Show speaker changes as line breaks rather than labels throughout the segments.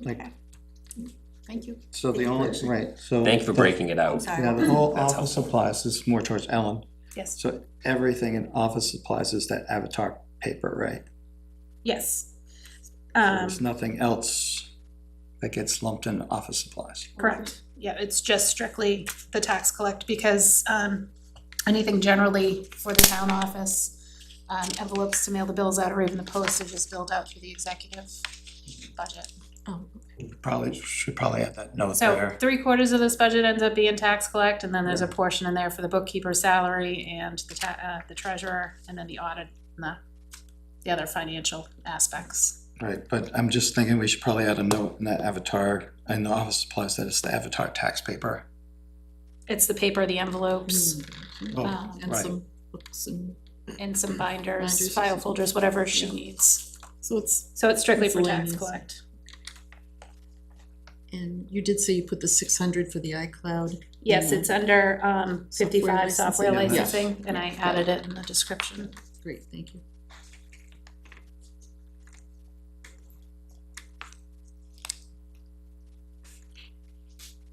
Like,
Thank you.
so the only, right, so.
Thank you for breaking it out.
Yeah, the whole
That's
office
helpful.
supplies is more towards Ellen.
Yes,
So everything in office supplies is that Avatar paper, right?
yes.
So
Um,
There's nothing else that gets lumped into office supplies.
correct. Yeah, it's just strictly the tax collect because, um, anything generally for the town office, um, envelopes to mail the bills out or even the postage is billed out through the executive budget.
Probably, should probably add that note
So
there.
three quarters of this budget ends up being tax collect, and then there's a portion in there for the bookkeeper's salary and the ta- uh, the treasurer, and then the audit, and the, the other financial aspects.
Right, but I'm just thinking we should probably add a note in that Avatar, in the office supplies, that it's the Avatar tax paper.
It's the paper, the envelopes,
Oh,
um,
uh, And
Right.
some books and,
and some binders,
Binders.
file folders, whatever she
Yeah.
needs.
so it's,
So it's strictly for tax
Miscellaneous.
collect.
and you did say you put the six hundred for the iCloud.
Yes,
Yeah.
it's under, um, fifty-five
Software
software
licensing. Yeah.
licensing, and I added it in the description.
Great, thank you.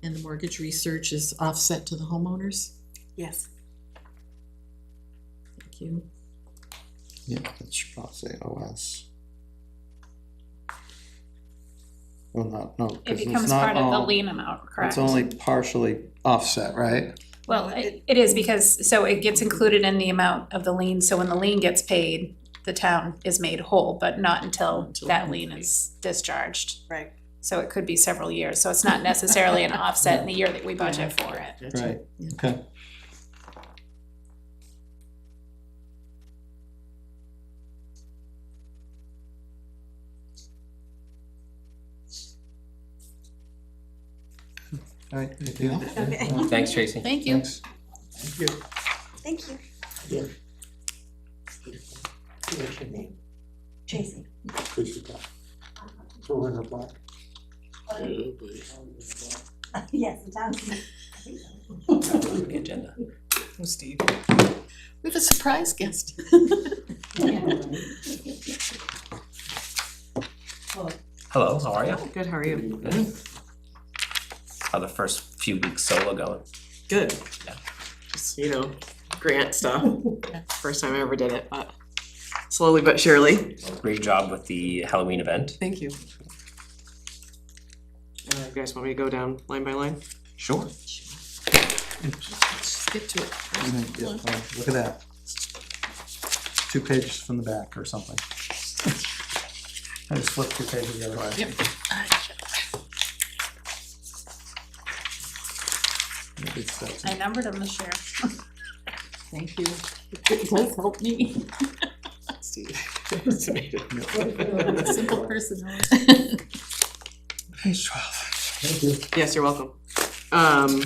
And the mortgage research is offset to the homeowners?
Yes.
Thank you.
Yeah, that should probably say OS. Well, not, no,
It
because it's
becomes
not
part of the
all,
lien amount, correct?
it's only partially offset, right?
Well, it it is because, so it gets included in the amount of the lien, so when the lien gets paid, the town is made whole, but not until
Until
that
the
lien is discharged.
Right.
So it could be several years, so it's not necessarily an offset in the year that we budget for it.
Right,
Yeah.
okay. All right, anything else?
Okay.
Thanks, Tracy.
Thank you.
Thanks.
Thank you.
What's your name?
Tracy.
Tracy Black. Joanna Black.
Yes, the town.
Good Agenda.
We have a surprise guest.
Hello, how are you?
Good, how are you?
Good. How the first few weeks solo going?
good.
Yeah.
Just, you know, grant stuff. First time I ever did it, but slowly but surely.
Great job with the Halloween event.
Thank you. Uh, you guys want me to go down line by line?
Sure.
Skip to it.
Yeah, yeah, oh, Look at that. Two pages from the back or something. I just flipped two pages the other way.
Yep.
Good stuff.
I numbered them this year.
Thank you. It does help me. Simple person. huh?
Page twelve.
Yes, you're welcome. Um,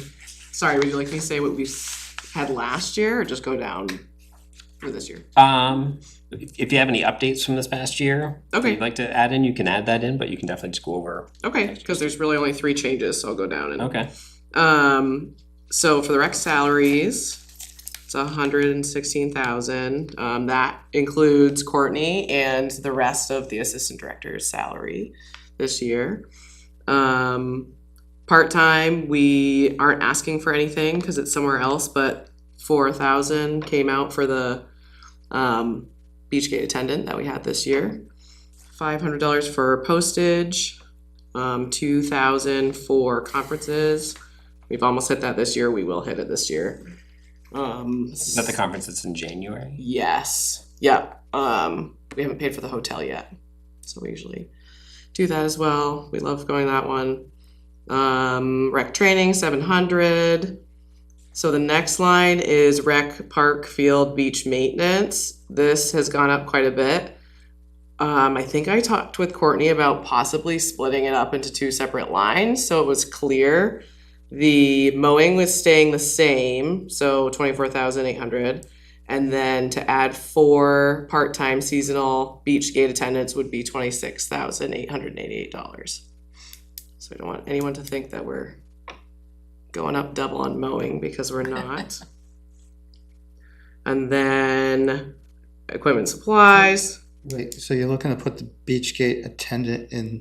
sorry, would you like me to say what we s- had last year or just go down for this year?
Um, if if you have any updates from this past year, that
Okay.
you'd like to add in, you can add that in, but you can definitely just go over.
Okay, because there's really only three changes, so I'll go down and.
Okay.
Um, so for the rec salaries, it's a hundred and sixteen thousand. Um, that includes Courtney and the rest of the assistant director's salary this year. Um, part-time, we aren't asking for anything because it's somewhere else, but four thousand came out for the, um, Beachgate attendant that we had this year. Five hundred dollars for postage, um, two thousand for conferences, We've almost hit that this year. We will hit it this year. Um,
Is that the conference that's in January?
Yes. Yep. Um, we haven't paid for the hotel yet, so we usually do that as well. We love going that one. Um, rec training seven hundred. So the next line is rec park field beach maintenance. This has gone up quite a bit. Um, I think I talked with Courtney about possibly splitting it up into two separate lines, so it was clear. The mowing was staying the same, so twenty-four thousand eight hundred. And then to add four part-time seasonal beach gate attendants would be twenty-six thousand eight hundred and eighty-eight dollars. So I don't want anyone to think that we're going up double on mowing because we're not. And then equipment supplies.
Wait, so you're looking to put the beach gate attendant in